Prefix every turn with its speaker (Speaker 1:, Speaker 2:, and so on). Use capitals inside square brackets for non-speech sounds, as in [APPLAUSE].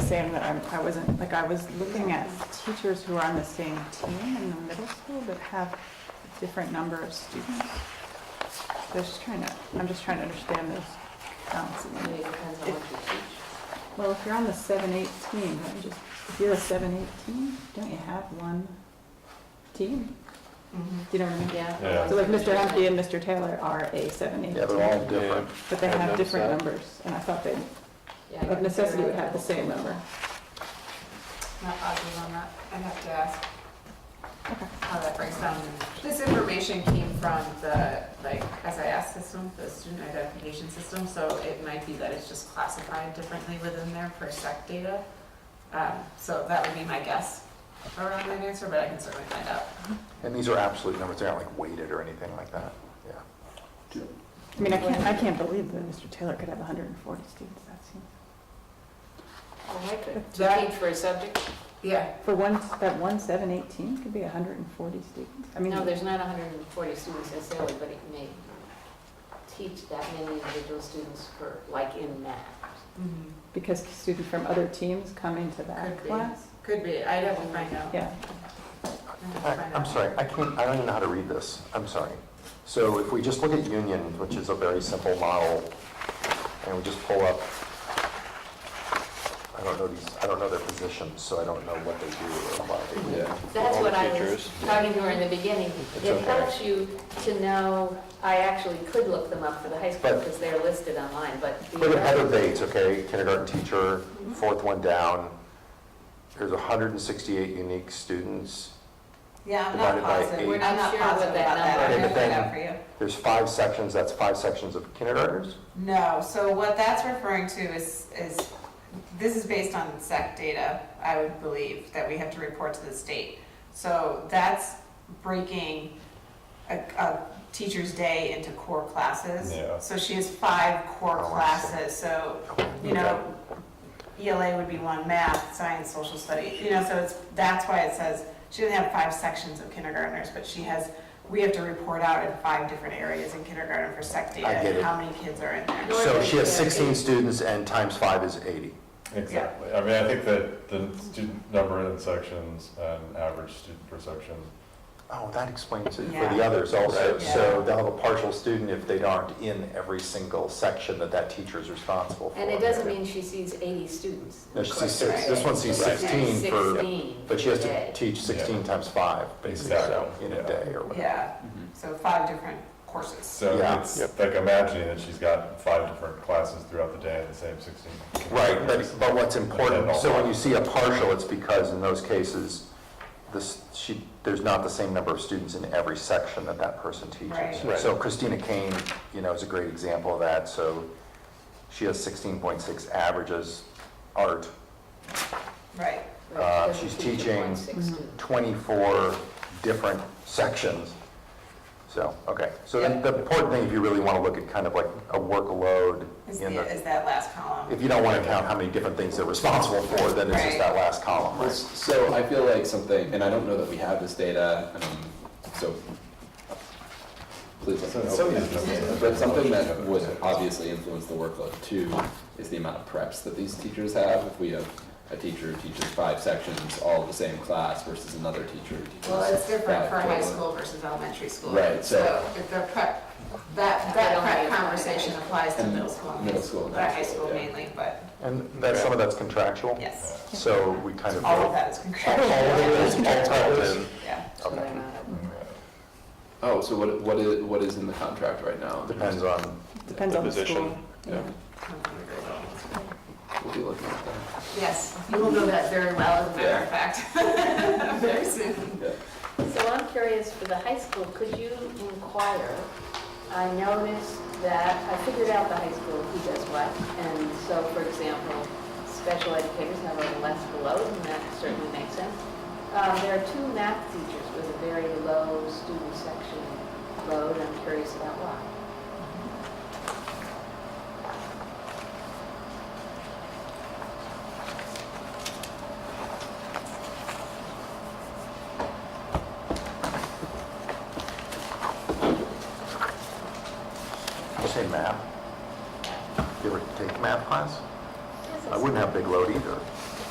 Speaker 1: saying that I'm- I wasn't, like, I was looking at teachers who are on the same team in the middle school that have a different number of students. So I was just trying to, I'm just trying to understand those counts.
Speaker 2: I mean, it depends on what you teach.
Speaker 1: Well, if you're on the seven eight team, don't you just, if you're a seven eight team, don't you have one team?
Speaker 3: Mm-hmm.
Speaker 1: Do you know what I mean?
Speaker 2: Yeah.
Speaker 4: Yeah.
Speaker 1: So like Mr. Humke and Mr. Taylor are a seven eight
Speaker 5: Yeah,
Speaker 1: team,
Speaker 5: they're all different.
Speaker 1: but they
Speaker 4: I've
Speaker 1: have
Speaker 4: noticed
Speaker 1: different
Speaker 4: that.
Speaker 1: numbers, and I thought they,
Speaker 2: Yeah,
Speaker 1: of necessity, would have the same number.
Speaker 3: Not positive on that. I'd have to ask
Speaker 1: Okay.
Speaker 3: how that breaks down. This information came from the, like, SIS system, the student identification system, so it might be that it's just classified differently within there for sec E data. Um, So that would be my guess around that answer, but I can certainly find out.
Speaker 5: And these are absolute numbers, they're not like weighted or anything like that, yeah.
Speaker 1: I mean, I can't, I can't believe that Mr. Taylor could have hundred and forty students, that seems,
Speaker 2: I could. To
Speaker 3: That-
Speaker 2: teach for a subject?
Speaker 3: Yeah,
Speaker 1: for one, that one seven eight team could be hundred and forty students, I mean.
Speaker 2: No, there's not hundred and forty students necessarily, but it may teach that many individual students for, like in math.
Speaker 3: Mm-hmm.
Speaker 1: Because students from other teams come into that
Speaker 3: Could be.
Speaker 1: class,
Speaker 3: could be. I'd have to find out.
Speaker 1: yeah.
Speaker 3: I'd have to
Speaker 5: I-
Speaker 3: find
Speaker 5: I'm
Speaker 3: out.
Speaker 5: sorry, I can't, I don't even know how to read this, I'm sorry. So if we just look at Union, which is a very simple model, and we just pull up, I don't know these, I don't know their positions, so I don't know what they do or why they do. it.
Speaker 2: That's
Speaker 4: All
Speaker 2: what
Speaker 4: the
Speaker 2: I was
Speaker 4: teachers.
Speaker 2: talking to her in the beginning.
Speaker 5: It's
Speaker 2: It
Speaker 5: okay.
Speaker 2: helps you to know, I actually could look them up for the high school
Speaker 5: But-
Speaker 2: because they're listed online, but. the-
Speaker 5: Look at other dates, okay, kindergarten teacher, fourth one down, there's 168 unique students,
Speaker 6: Yeah, I'm
Speaker 5: Divided
Speaker 6: not
Speaker 5: by
Speaker 6: positive.
Speaker 5: eight.
Speaker 6: I'm not
Speaker 2: Sure what
Speaker 6: positive
Speaker 2: that
Speaker 6: about that.
Speaker 2: number
Speaker 6: I'm
Speaker 5: is.
Speaker 6: gonna find out for you.
Speaker 5: there's five sections, that's five sections of kindergartners?
Speaker 6: No, so what that's referring to is, is, this is based on SEC data, I would believe, that we have to report to the state. So that's breaking a, a teacher's day into core classes.
Speaker 4: Yeah.
Speaker 6: So she has five core
Speaker 5: Oh, I see.
Speaker 6: classes, so, you know, ELA would be one, math, science, social study, you know, so it's, that's why it says, she doesn't have five sections of kindergartners, but she has, we have to report out in five different areas in kindergarten for SEC data.
Speaker 5: I get
Speaker 6: and
Speaker 5: it.
Speaker 6: How many kids are in there?
Speaker 5: So she has 16 students and times five is 80.
Speaker 4: Exactly. I mean, I think that the student number in sections and average student per section.
Speaker 5: Oh, that explains it for the
Speaker 6: Yeah.
Speaker 5: others also.
Speaker 4: Right.
Speaker 5: So they'll have a partial student if they aren't in every single section that that teacher is responsible for.
Speaker 2: And it doesn't mean she sees eighty students.
Speaker 5: No, she sees
Speaker 2: Right.
Speaker 5: six, this one sees
Speaker 4: Right.
Speaker 5: 16 for,
Speaker 2: 16
Speaker 5: but she has
Speaker 2: today.
Speaker 5: to teach 16 times five, basically, so,
Speaker 4: Exactly.
Speaker 5: in
Speaker 4: Yeah.
Speaker 5: a day or whatever.
Speaker 6: Yeah,
Speaker 4: Mm-hmm.
Speaker 6: so five different courses.
Speaker 4: So
Speaker 5: Yeah.
Speaker 4: it's like imagining that she's got five different classes throughout the day at the same 16.
Speaker 5: Right, but, but what's important,
Speaker 4: Yeah.
Speaker 5: so when you see a partial, it's because in those cases, this, she, there's not the same number of students in every section that that person teaches.
Speaker 6: Right.
Speaker 4: Right.
Speaker 5: So Christina Kane, you know, is a great example of that, so she has sixteen point six averages, art,
Speaker 6: Right.
Speaker 5: uh,
Speaker 2: Because
Speaker 5: she's
Speaker 2: you teach
Speaker 5: teaching-
Speaker 2: one sixth student.
Speaker 5: twenty-four different sections. So, okay, so then the important thing, if you really wanna look at kind of like a workload
Speaker 6: Is,
Speaker 5: in
Speaker 6: the,
Speaker 5: the,
Speaker 6: is that last column?
Speaker 5: if you don't wanna count how many different things they're responsible for, then it's
Speaker 6: Right.
Speaker 5: just that last column, right?
Speaker 7: So I feel like something, and I don't know that we have this data, um, so please let me know.
Speaker 4: So it's just-
Speaker 7: But something that would obviously influence the workload too is the amount of preps that these teachers have. If we have a teacher who teaches five sections, all of the same class versus another teacher who teaches.
Speaker 3: Well, it's different
Speaker 7: five
Speaker 3: for high
Speaker 7: total.
Speaker 3: school versus elementary school.
Speaker 7: Right, so-
Speaker 3: If the prep, that, that prep conversation applies to middle school. and
Speaker 7: Middle school and
Speaker 3: But
Speaker 7: high
Speaker 3: high
Speaker 7: school,
Speaker 3: school
Speaker 7: yeah.
Speaker 3: mainly, but
Speaker 5: And that's, some of that's contractual?
Speaker 6: Yes,
Speaker 5: So we kind of.
Speaker 6: all of that is
Speaker 5: All
Speaker 6: contractual,
Speaker 5: of it is contracted.
Speaker 6: yeah.
Speaker 2: So uh, they're not-
Speaker 4: Mm-hmm.
Speaker 7: Oh, so what, what is, what is in the contract right now?
Speaker 5: Depends on,
Speaker 1: Depends
Speaker 4: The
Speaker 1: on the
Speaker 4: position.
Speaker 1: school.
Speaker 7: Yeah, we'll be looking at that.
Speaker 3: yes, you will know that very well, as a matter of fact. [LAUGHS] Very soon.
Speaker 2: So I'm curious, for the high school, could you inquire? I noticed that, I figured out the high school, who does what. And so, for example, special educators have a less load, and that certainly makes sense. Um, There are two math teachers with a very low student section load. I'm curious about why.
Speaker 5: you say math? You ever take math class? I wouldn't have big load either.